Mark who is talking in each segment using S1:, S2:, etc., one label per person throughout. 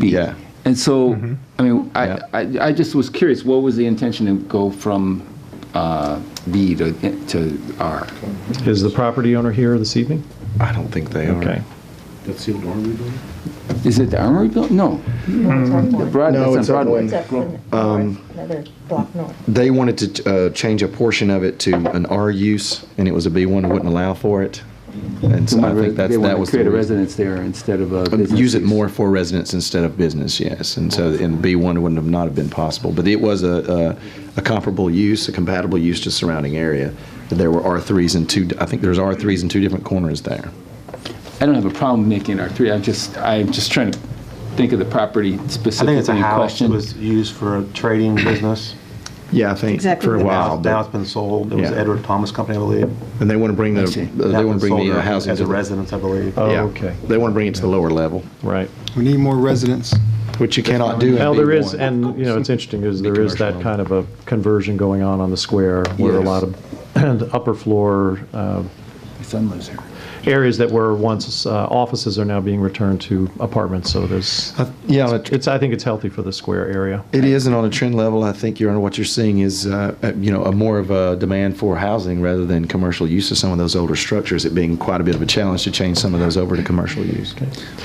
S1: be.
S2: Yeah. Mm-hmm.
S1: And so, I mean, I, I, I just was curious, what was the intention to go from uh, B to, to R?
S3: Is the property owner here this evening?
S2: I don't think they are.
S3: Okay.
S4: That's the old armory building?
S1: Is it the Armory Building? No, Broad,
S2: No,
S1: that's
S2: it's
S1: on
S2: up
S1: Broadway.
S2: north.
S5: It's up in the north, another block north.
S2: They wanted to uh, change a portion of it to an R use, and it was a B1, wouldn't allow for it. And
S1: So
S2: so I
S1: my re-
S2: think that's,
S1: They
S2: that
S1: want
S2: was
S1: to create a
S2: the reason.
S1: residence there instead of a business.
S2: Use it
S1: use.
S2: more for residents instead of business, yes. And so, and B1 wouldn't have not have been possible. But it was a, uh, a- a comparable use, a compatible use to surrounding area. There were R3s in two, I think there's R3s in two different corners there.
S1: I don't have a problem making it R3, I'm just, I'm just trying to think of the property
S6: I think it's a
S1: specifically in
S6: house that
S1: question.
S6: was used for a trading business.
S2: Yeah, I think
S7: Exactly.
S2: for a
S6: And
S2: while.
S6: now-
S2: but-
S6: Now it's been sold. It was
S2: Yeah.
S6: Edward Thomas Company, I believe.
S2: And they want to bring the,
S1: see.
S2: they want to bring the uh, housing.
S6: As a
S2: to the-
S6: residence, I believe.
S3: Oh,
S2: Yeah.
S3: okay.
S2: They want to bring it to the lower level,
S3: Right.
S8: We need more residents.
S2: which you cannot do in
S3: Now, there is,
S2: B1.
S3: and, you know, it's interesting, is there is that kind of a conversion going on on the square where a
S2: Yes.
S3: lot of the upper floor uh,
S1: My son lives there.
S3: areas that were once uh, offices are now being returned to apartments, so there's,
S2: Uh, Yeah, on a tr-
S3: it's, I think it's healthy for the square area.
S2: it is, and on a trend level, I think, Your Honor, what you're seeing is, uh, uh, you know, a more of a demand for housing rather than commercial use of some of those older structures, it being quite a bit of a challenge to change some of those over to commercial use.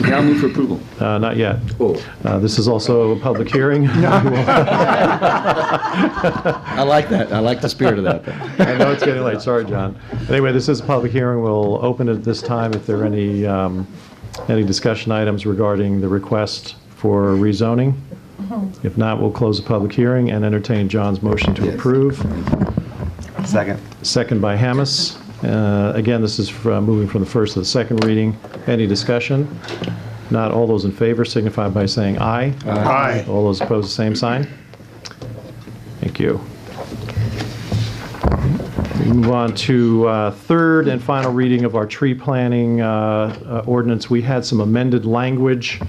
S1: Now move for approval.
S3: Uh, Not yet.
S1: Oh.
S3: Uh, This is also a public hearing.
S2: I like that, I like the spirit of that.
S3: I know it's getting late, sorry, John. Anyway, this is a public hearing, we'll open it this time if there are any, um, any discussion items regarding the request for rezoning. If not, we'll close the public hearing and entertain John's motion to approve,
S6: Second.
S3: second by Hamas. Uh, Again, this is from- moving from the first to the second reading. Any discussion? Not all those in favor signify by saying aye. Aye. All those opposed, same sign. Thank you. We Move on to uh, third and final reading of our tree planting uh, uh, ordinance. We had some amended language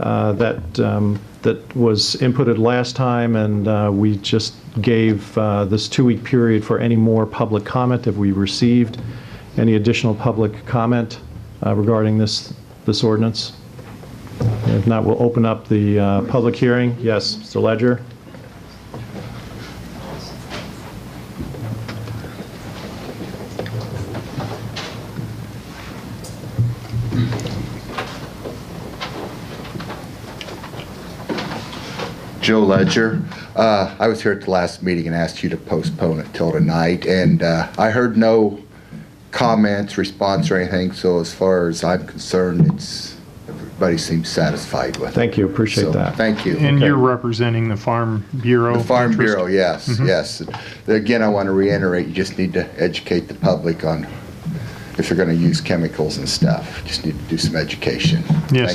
S3: uh, that, um, that was inputted last time, and uh, we just gave uh, this two-week period for any more public comment if we received any additional public comment uh, regarding this, this ordinance. If not, we'll open up the uh, public hearing. Yes, Mr. Ledger?
S9: Joe Ledger. Uh, I was here at the last meeting and asked you to postpone it till tonight, and uh, I heard no comments, response, or anything, so as far as I'm concerned, it's, everybody seems satisfied with it.
S3: Thank you, appreciate
S9: So,
S3: that.
S9: Thank you.
S10: And you're representing the Farm Bureau?
S9: The Farm
S10: interest? Mm-hmm.
S9: Bureau, yes, yes. Again, I want to reiterate, you just need to educate the public on if you're going to use chemicals and stuff. Just need to do some education.
S10: Yes,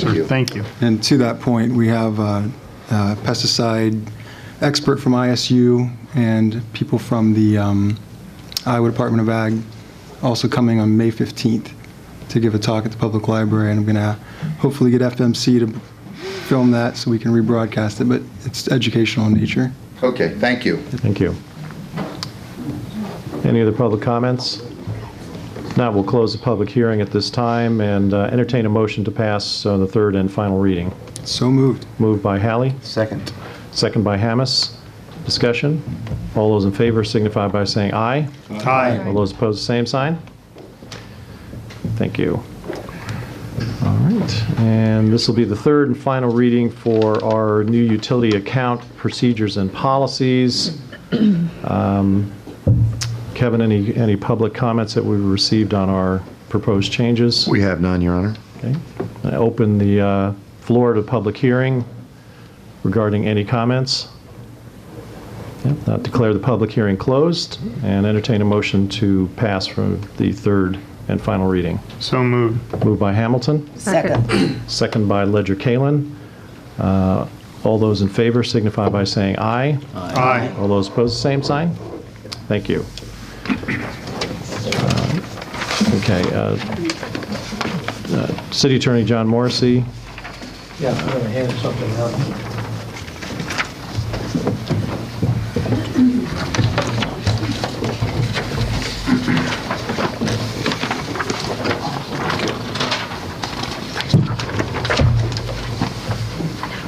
S9: Thank
S10: sir,
S9: you.
S10: thank you.
S8: And to that point, we have a pesticide expert from ISU and people from the um, Iowa Department of Ag also coming on May 15th to give a talk at the public library, and I'm going to hopefully get FMC to film that so we can rebroadcast it, but it's educational in nature.
S9: Okay, thank you.
S3: Thank you. Any other public comments? If Not, we'll close the public hearing at this time and uh, entertain a motion to pass uh, the third and final reading.
S8: So moved.
S3: Moved by Hallie,
S6: Second.
S3: second by Hamas. Discussion? All those in favor signify by saying aye.
S10: Aye.
S3: All those opposed, same sign. Thank you. All right, and this will be the third and final reading for our new utility account procedures and policies. Um, Kevin, any, any public comments that we received on our proposed changes?
S2: We have none, Your Honor.
S3: Okay. I open the uh, floor to public hearing regarding any comments. Yep, Not declare the public hearing closed and entertain a motion to pass from the third and final reading.
S10: So moved.
S3: Moved by Hamilton,
S5: Second.
S3: second by Ledger Kalin. Uh, All those in favor signify by saying aye.
S10: Aye.
S3: All those opposed, same sign? Thank you. Uh, Okay. uh, uh, City Attorney John Morrissey,
S11: Yeah, I'm gonna hand something out.